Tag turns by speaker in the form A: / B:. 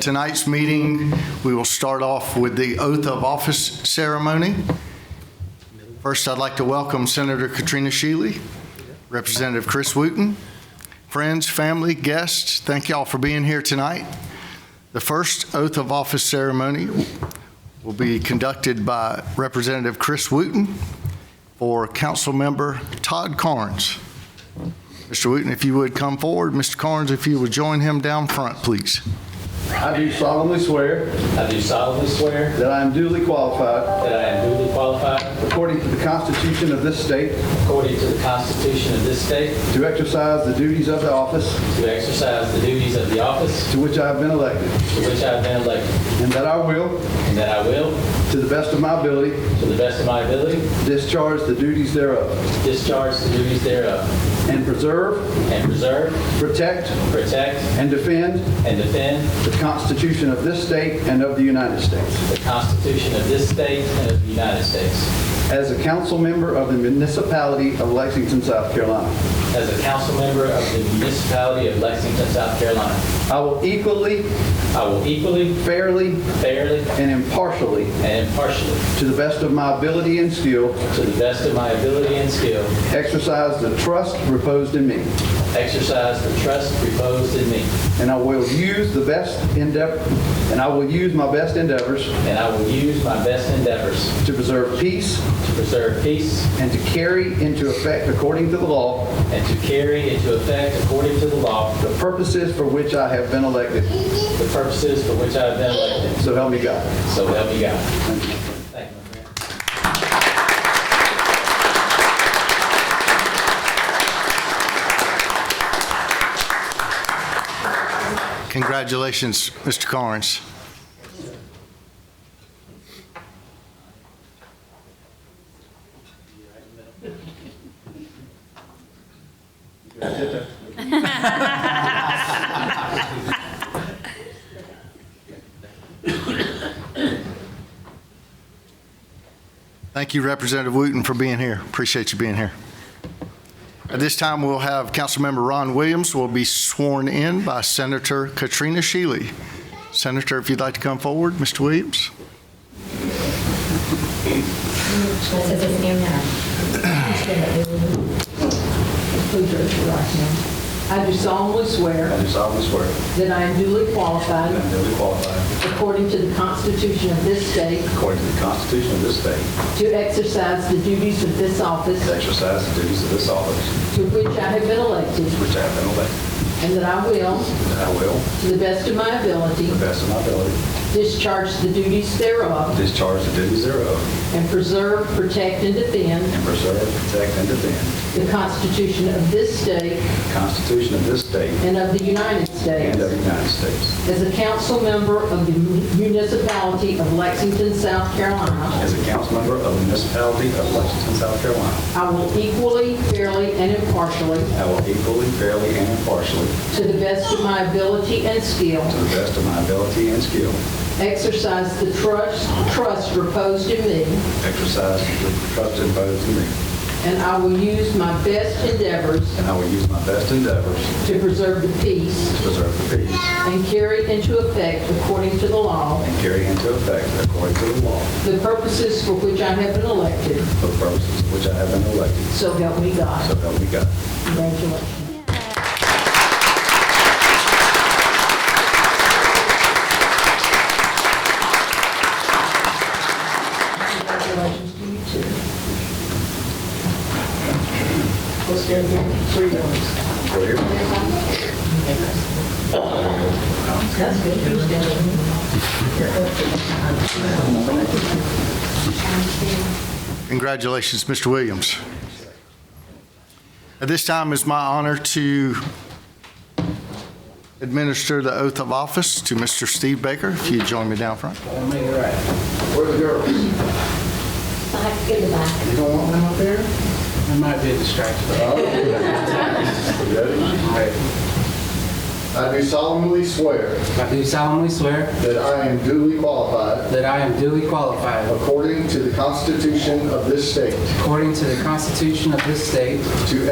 A: Tonight's meeting, we will start off with the oath of office ceremony. First, I'd like to welcome Senator Katrina Shealy, Representative Chris Wooten, friends, family, guests, thank y'all for being here tonight. The first oath of office ceremony will be conducted by Representative Chris Wooten for Councilmember Todd Carnes. Mr. Wooten, if you would come forward, Mr. Carnes, if you would join him down front, please.
B: I do solemnly swear
C: I do solemnly swear
B: that I am duly qualified,
C: that I am duly qualified,
B: according to the Constitution of this state,
C: according to the Constitution of this state,
B: to exercise the duties of the office
C: to exercise the duties of the office
B: to which I have been elected,
C: to which I have been elected,
B: and that I will,
C: and that I will,
B: to the best of my ability,
C: to the best of my ability,
B: discharge the duties thereof,
C: discharge the duties thereof,
B: and preserve,
C: and preserve,
B: protect,
C: protect,
B: and defend
C: and defend
B: the Constitution of this state and of the United States.
C: the Constitution of this state and of the United States.
B: As a council member of the municipality of Lexington, South Carolina,
C: As a council member of the municipality of Lexington, South Carolina,
B: I will equally,
C: I will equally,
B: fairly,
C: fairly,
B: and impartially,
C: and impartially,
B: to the best of my ability and skill,
C: to the best of my ability and skill,
B: Exercise the trust reposed in me,
C: exercise the trust reposed in me,
B: and I will use the best endeavor, and I will use my best endeavors
C: And I will use my best endeavors
B: to preserve peace
C: to preserve peace
B: and to carry into effect, according to the law,
C: and to carry into effect, according to the law,
B: the purposes for which I have been elected.
C: the purposes for which I have been elected.
B: So help me God.
C: So help me God. Thank you, my friend.
A: Congratulations, Mr. Carnes. Thank you, Representative Wooten, for being here. Appreciate you being here. At this time, we'll have Councilmember Ron Williams will be sworn in by Senator Katrina Shealy. Senator, if you'd like to come forward, Mr. Williams.
D: This is his name now.
E: Please raise your right hand. I do solemnly swear
B: I do solemnly swear that
E: that I am duly
B: I
E: qualified,
B: am duly qualified,
E: according to the Constitution of this state,
B: according to the Constitution of this state,
E: to exercise the duties of this
B: to
E: office
B: exercise the duties of this office
E: to which I have been elected,
B: which I have been elected,
E: and that I will,
B: and that I will,
E: to the best of my ability,
B: to the best of my ability,
E: discharge the duties thereof,
B: discharge the duties thereof,
E: and preserve, protect, and defend
B: and preserve, protect, and defend
E: the Constitution of this state
B: the Constitution of this state
E: and of the
B: and
E: United States.
B: of the United States.
E: As a council member of the municipality of Lexington, South Carolina,
B: As a council member of the municipality of Lexington, South Carolina,
E: I will equally, fairly, and impartially,
B: I will equally, fairly, and impartially,
E: to the best of my ability and skill,
B: to the best of my ability and skill,
E: exercise the trust trust reposed in me,
B: exercise the trust imposed in me,
E: and I will use my best endeavors
B: and I will use my best endeavors
E: to preserve the
B: to
E: peace
B: preserve the peace
E: and carry into effect, according to the law,
B: and carry into effect, according to the law,
E: the purposes for which I have been elected,
B: the purposes for which I have been elected.
E: so help me
B: So
E: God.
B: help me God.
E: Congratulations. Congratulations to you too. Let's get three dollars.
B: For you.
E: That's good. Who's doing it?
A: Congratulations, Mr. Williams. At this time, it's my honor to administer the oath of office to Mr. Steve Baker, if you'd join me down front.
B: Make it right. Where the girls? You
D: Back, give it back.
B: don't want them up there?
F: I might be a distraction.
A: I do solemnly swear
F: I do solemnly swear
A: that I am duly qualified,
F: that I am duly qualified,
A: according to the Constitution of this state,
F: according to the Constitution of this state,
A: to